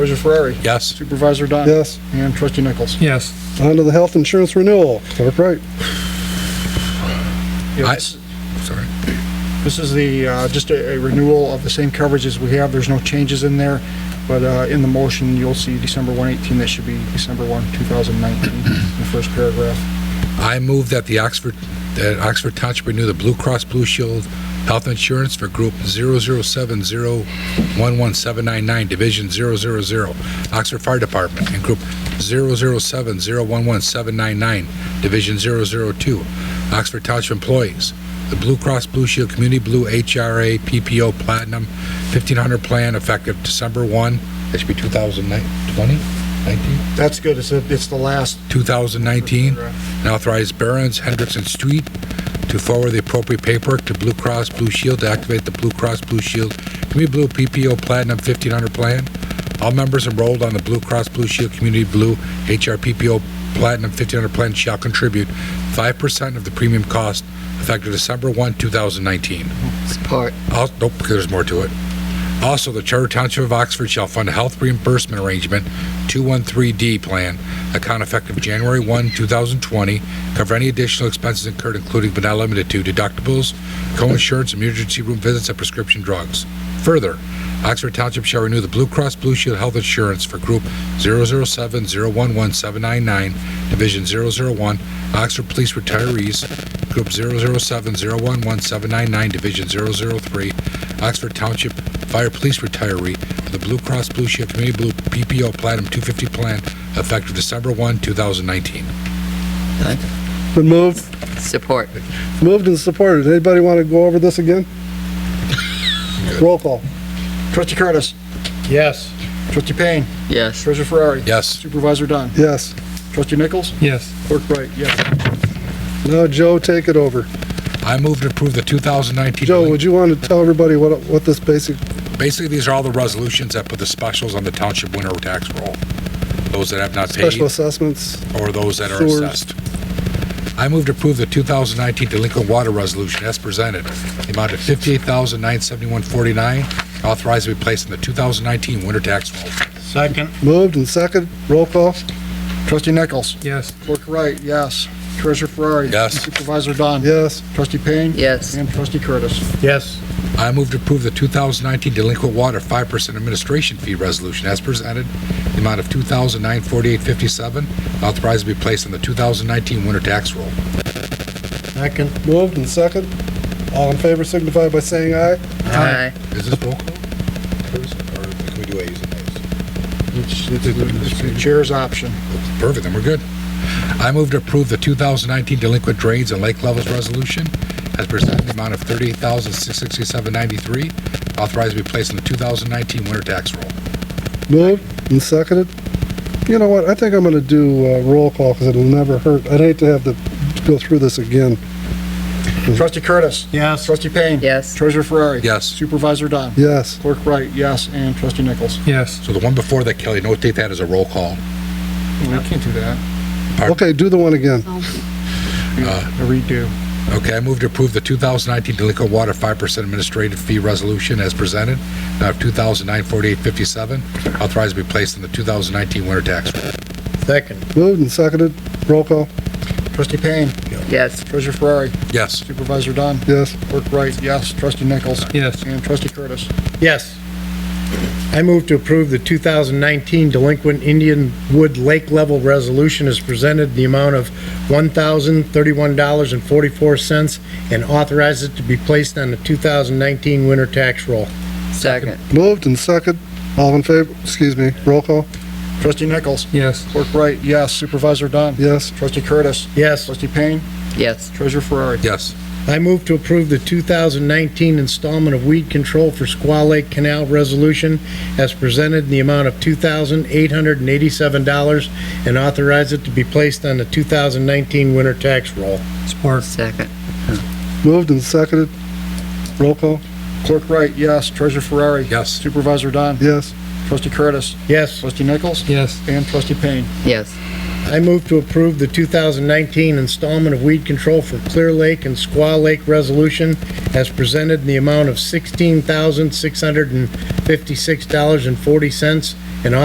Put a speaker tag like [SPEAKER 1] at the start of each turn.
[SPEAKER 1] Supervisor Ferrari.
[SPEAKER 2] Yes.
[SPEAKER 1] Supervisor Dunn.
[SPEAKER 3] Yes.
[SPEAKER 1] And Trustee Nichols.
[SPEAKER 4] Yes.
[SPEAKER 3] On to the health insurance renewal. Clerk Wright.
[SPEAKER 1] Yeah,
[SPEAKER 2] I-
[SPEAKER 1] This
[SPEAKER 2] Sorry.
[SPEAKER 1] this is the, uh, just a a renewal of the same coverage as we have. There's no changes in there. But uh, in the motion, you'll see December 118. That should be December 1, 2019, in the first paragraph.
[SPEAKER 2] I move that the Oxford, that Oxford Township renew the Blue Cross Blue Shield health insurance for group 007011799, division 000, Oxford Fire Department, and group 007011799, division 002, Oxford Township employees. The Blue Cross Blue Shield Community Blue HRA PPO Platinum 1500 plan effective December 1, that should be 2020, 19?
[SPEAKER 1] That's good. It's, a- it's the last
[SPEAKER 2] 2019, and authorize Barron's Hendrickson Street to forward the appropriate paperwork to Blue Cross Blue Shield to activate the Blue Cross Blue Shield Community Blue PPO Platinum 1500 plan. All members enrolled on the Blue Cross Blue Shield Community Blue HRPPO Platinum 1500 plan shall contribute 5% of the premium cost effective December 1, 2019.
[SPEAKER 5] Support.
[SPEAKER 2] Al- Nope, because there's more to it. Also, the Charter Township of Oxford shall fund a health reimbursement arrangement 213D plan, account effective January 1, 2020, cover any additional expenses incurred, including but not limited to deductibles, co-insurance, emergency room visits, and prescription drugs. Further, Oxford Township shall renew the Blue Cross Blue Shield health insurance for Group 007011799, Division 001, Oxford Police Retirees, Group 007011799, Division 003, Oxford Township Fire Police Retiree, the Blue Cross Blue Shield Community Blue PPO Platinum 250 Plan, effective December 1, 2019.
[SPEAKER 3] Been moved,
[SPEAKER 5] Support.
[SPEAKER 3] moved and supported. Anybody want to go over this again? Roll call.
[SPEAKER 1] Trustee Curtis.
[SPEAKER 4] Yes.
[SPEAKER 1] Trustee Payne.
[SPEAKER 5] Yes.
[SPEAKER 1] Treasurer Ferrari.
[SPEAKER 2] Yes.
[SPEAKER 1] Supervisor Dunn.
[SPEAKER 3] Yes.
[SPEAKER 1] Trustee Nichols.
[SPEAKER 4] Yes.
[SPEAKER 1] Clerk Wright, yes.
[SPEAKER 3] Now, Joe, take it over.
[SPEAKER 2] I move to approve the 2019.
[SPEAKER 3] Joe, would you want to tell everybody what, what this basic,
[SPEAKER 2] Basically, these are all the resolutions that put the specials on the township winter tax roll. Those that have not paid
[SPEAKER 3] special assessments?
[SPEAKER 2] or those that are
[SPEAKER 3] Sewers.
[SPEAKER 2] assessed. I move to approve the 2019 delinquent water resolution as presented, the amount of $58,971.49, authorized to be placed in the 2019 winter tax roll.
[SPEAKER 4] Second.
[SPEAKER 3] Moved and second, roll call.
[SPEAKER 1] Trustee Nichols.
[SPEAKER 4] Yes.
[SPEAKER 1] Clerk Wright, yes. Treasurer Ferrari.
[SPEAKER 2] Yes.
[SPEAKER 1] Supervisor Dunn.
[SPEAKER 3] Yes.
[SPEAKER 1] Trustee Payne.
[SPEAKER 5] Yes.
[SPEAKER 1] And Trustee Curtis.
[SPEAKER 4] Yes.
[SPEAKER 2] I move to approve the 2019 delinquent water 5% administration fee resolution as presented, the amount of $2,948.57, authorized to be placed in the 2019 winter tax roll.
[SPEAKER 4] Second.
[SPEAKER 3] Moved and second. All in favor signify by saying aye.
[SPEAKER 5] Aye.
[SPEAKER 2] Is this roll call? Or can we do A's and A's?
[SPEAKER 1] It's it's the chair's option.
[SPEAKER 2] Perfect, then we're good. I move to approve the 2019 delinquent drains and lake levels resolution as presented in the amount of $38,667.93, authorized to be placed in the 2019 winter tax roll.
[SPEAKER 3] Moved and seconded. You know what, I think I'm going to do uh, roll call because it'll never hurt. I'd hate to have to go through this again.
[SPEAKER 1] Trustee Curtis.
[SPEAKER 4] Yes.
[SPEAKER 1] Trustee Payne.
[SPEAKER 5] Yes.
[SPEAKER 1] Treasurer Ferrari.
[SPEAKER 2] Yes.
[SPEAKER 1] Supervisor Dunn.
[SPEAKER 3] Yes.
[SPEAKER 1] Clerk Wright, yes. And Trustee Nichols.
[SPEAKER 4] Yes.
[SPEAKER 2] So the one before that, Kelly, notate that as a roll call.
[SPEAKER 1] We can't do that.
[SPEAKER 3] Okay, do the one again.
[SPEAKER 1] A redo.
[SPEAKER 2] Okay, I move to approve the 2019 delinquent water 5% administrative fee resolution as presented, now of $2,948.57, authorized to be placed in the 2019 winter tax roll.
[SPEAKER 4] Second.
[SPEAKER 3] Moved and seconded, roll call.
[SPEAKER 1] Trustee Payne.
[SPEAKER 5] Yes.
[SPEAKER 1] Treasurer Ferrari.
[SPEAKER 2] Yes.
[SPEAKER 1] Supervisor Dunn.
[SPEAKER 3] Yes.
[SPEAKER 1] Clerk Wright, yes. Trustee Nichols.
[SPEAKER 4] Yes.
[SPEAKER 1] And Trustee Curtis.
[SPEAKER 4] Yes. I move to approve the 2019 delinquent Indian Wood Lake Level Resolution as presented in the amount of $1,031.44 and authorize it to be placed on the 2019 winter tax roll.
[SPEAKER 5] Second.
[SPEAKER 3] Moved and second, all in favor, excuse me, roll call.
[SPEAKER 1] Trustee Nichols.
[SPEAKER 4] Yes.
[SPEAKER 1] Clerk Wright, yes. Supervisor Dunn.
[SPEAKER 3] Yes.
[SPEAKER 1] Trustee Curtis.
[SPEAKER 4] Yes.
[SPEAKER 1] Trustee Payne.
[SPEAKER 5] Yes.
[SPEAKER 1] Treasurer Ferrari.
[SPEAKER 2] Yes.
[SPEAKER 4] I move to approve the 2019 installment of weed control for Squaw Lake Canal Resolution as presented in the amount of $2,887 and authorize it to be placed on the 2019 winter tax roll.
[SPEAKER 5] Support. Second.
[SPEAKER 3] Moved and seconded, roll call.
[SPEAKER 1] Clerk Wright, yes. Treasurer Ferrari.
[SPEAKER 2] Yes.
[SPEAKER 1] Supervisor Dunn.
[SPEAKER 3] Yes.
[SPEAKER 1] Trustee Curtis.
[SPEAKER 4] Yes,
[SPEAKER 1] Trustee Nichols.
[SPEAKER 4] Yes.
[SPEAKER 1] And Trustee Payne.
[SPEAKER 5] Yes.
[SPEAKER 4] I move to approve the 2019 installment of weed control for Clear Lake and Squaw Lake Resolution as presented in the amount of $16,656.40